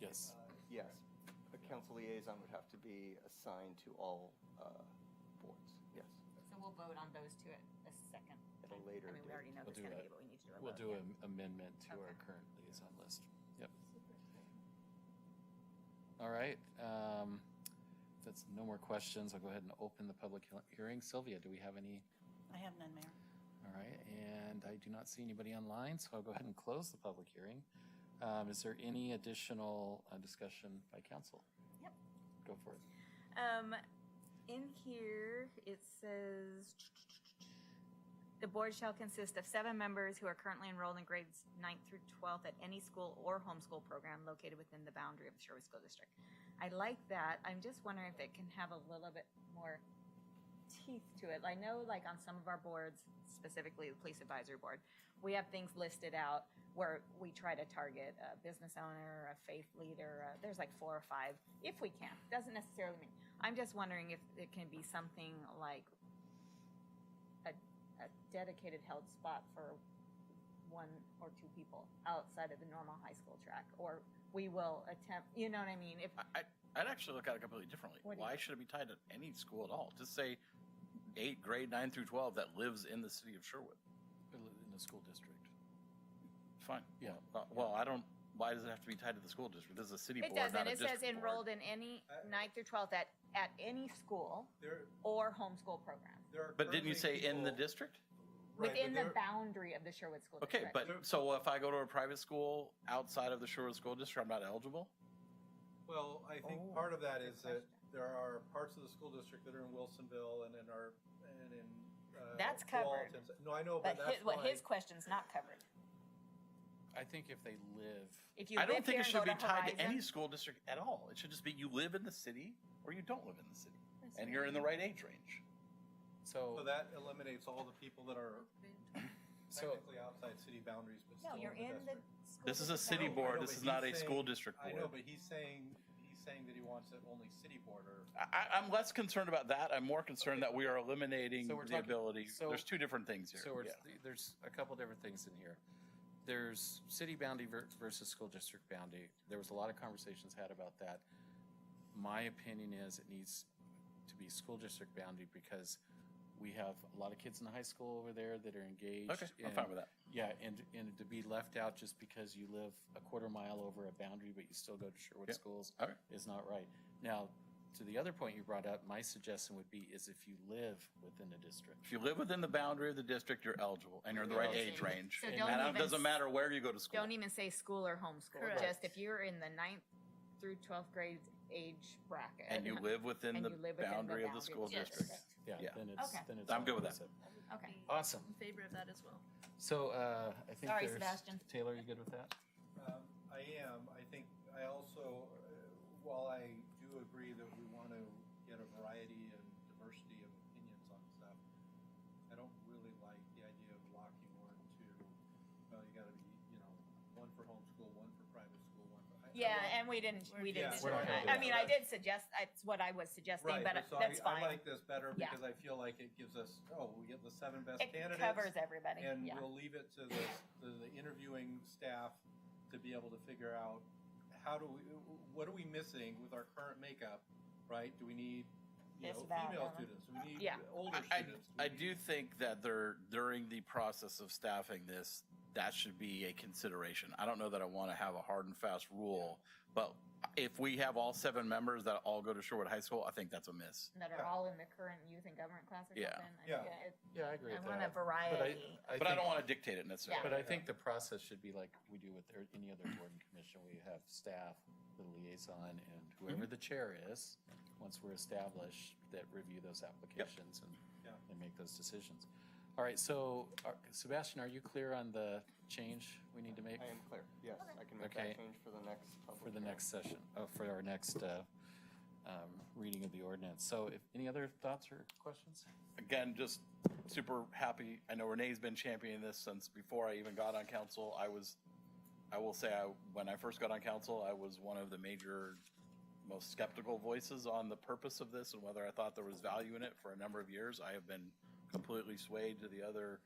Yes. Uh, Yes, a council liaison would have to be assigned to all uh, boards, yes, So we'll vote on those two at a second. at a time. later I mean, we already date. know We'll who's do gonna that. be, but we need to do a vote. We'll do an amendment to our Okay. current liaison list. Yep. All right. um, If that's no more questions, I'll go ahead and open the public he- hearing. Sylvia, do we have any? I have none, Mayor. All right, and I do not see anybody online, so I'll go ahead and close the public hearing. Um, Is there any additional uh, discussion by council? Yep. Go for it. Um, in here, it says, "The board shall consist of seven members who are currently enrolled in grades ninth through twelfth at any school or homeschool program located within the boundary of the Sherwood School District." I like that. I'm just wondering if it can have a little bit more teeth to it. I know, like, on some of our boards, specifically the Police Advisory Board, we have things listed out where we try to target a business owner, a faith leader, uh, there's like four or five, if we can. Doesn't necessarily mean, I'm just wondering if it can be something like a, a dedicated held spot for one or two people outside of the normal high school track, or we will attempt, you know what I mean? If, I, I'd actually look at it completely differently. What do Why you- should it be tied to any school at all? Just say eight, grade nine through 12 that lives in the city of Sherwood. In the school district. Fine. Yeah. Uh, Well, I don't, why does it have to be tied to the school district? This is a city it board, doesn't, not a it says district board. enrolled in any Uh, ninth through twelfth at, at any school There, or homeschool program. there are. But didn't you say currently in the people- district? right, but Within the there- boundary of the Sherwood School Okay, District. but so if I go to a private school outside of the Sherwood School District, I'm not eligible? Well, I Oh, think part of that good is that question. there are parts of the school district that are in Wilsonville and in our, and in. uh, That's covered. Walton. No, I know, But but that's his, why. what his question's not covered. I think if they live, If you I don't live think here it and go should be to tied to any Horizon, school district at all. It should just be you live in the city or you don't live in the city. That's And you're in the right age range. So so, that eliminates all the people that are so, technically outside city boundaries, but No, still you're in the. district. school This is a district No, city I boundary. board. know, This but is not a he's school saying- district I know, board. but he's saying, he's saying that he wants it only city board or. I, I- I'm less concerned about that. I'm more concerned that we are eliminating So we're the talking- ability. so- There's two different things here. so yeah. it's- there's a couple different things in here. There's city boundary ver- versus school district boundary. There was a lot of conversations had about that. My opinion is it needs to be school district boundary because we have a lot of kids in the high school over there that are engaged. Okay, I'm in- fine with that. Yeah, and, and to be left out just because you live a quarter mile over a boundary, but you still go to Sherwood Yeah, schools all right. is not right. Now, to the other point you brought up, my suggestion would be is if you live within a district. If you live within the boundary of the district, you're eligible and you're in the right age range. So And don't it even doesn't s- matter where you go to school. Don't even say school or homeschool, Correct. just if you're in the ninth through twelfth grade age bracket. And you live within and the you live within the boundary of the boundary. school Yes. district. Yeah, Yeah. then it's, Okay. then it's. I'm good with that. all-inclusive. Okay. Awesome. in favor of that as well. So, uh, I think Sorry, there's, Sebastian. Taylor, you good with that? Um, I am. I think I also, uh, while I do agree that we want to get a variety and diversity of opinions on stuff, I don't really like the idea of locking one to, well, you gotta be, you know, one for homeschool, one for private school, one for. I- I Yeah, like- and we didn't, we didn't. Yeah, do we're not gonna that. I do that. mean, I did suggest, that's what I was suggesting, Right, but so I- that's I fine. like this better Yeah. because I feel like it gives us, oh, we get the seven best It candidates. covers everybody, And yeah. we'll leave it to the, to the interviewing staff to be able to figure out how do we, what are we missing with our current makeup, right? Do we need, you This, know, that, female that one. students? Do we need Yeah. older Uh, I- students? I we do need- think that there, during the process of staffing this, that should be a consideration. I don't know that I want to have a hard and fast rule, but if we have all seven members that all go to Sherwood High School, I think that's a miss. That are Yeah. all in the current youth and government class or something. Yeah. I Yeah. think it- Yeah, I agree I with want a that. variety. But I don't want to dictate it necessarily. But I think the process should be like we do with er- any other board and commission. We have staff, the liaison, and Mm-hmm. whoever the chair is, once we're established, that review those applications and, Yeah. and make those decisions. All right, so are- Sebastian, are you clear on the change we need to make I am clear, yes, I can make Okay. that change for the next public. for the hearing. next session, oh, for our next uh, um, reading of the ordinance? So if, any other thoughts or questions? again, just super happy. I know Renee's been championing this since before I even got on council. I was, I will say, I, when I first got on council, I was one of the major, most skeptical voices on the purpose of this and whether I thought there was value in it for a number of years. I have been completely swayed to the other